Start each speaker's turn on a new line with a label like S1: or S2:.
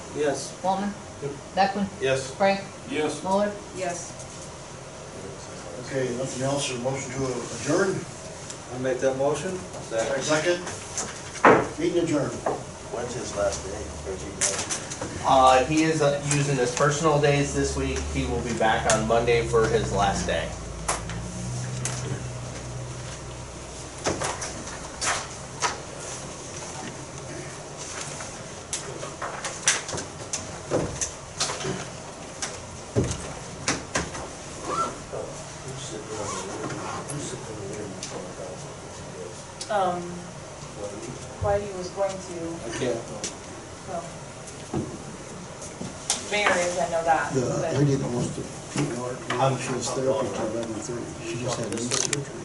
S1: Yes.
S2: Waltman?
S3: Yep.
S2: Beckman?
S1: Yes.
S2: Frank?
S4: Yes.
S2: Muller?
S5: Yes,
S3: Okay, nothing else, a motion to adjourn,
S1: I make that motion? Second.
S3: second, meeting adjourned.
S6: When's his last day? Thirteen days.
S7: Uh, he is uh, using his personal days this week. He will be back on Monday for his last day.
S6: Who's sitting on the, who's sitting on the interview for the council?
S5: um, Whitey was going to,
S1: I can't.
S5: well, Mayor is, I know that,
S8: The
S5: but.
S8: lady that wants to, she was there up until eleven thirty, she just had knee surgery.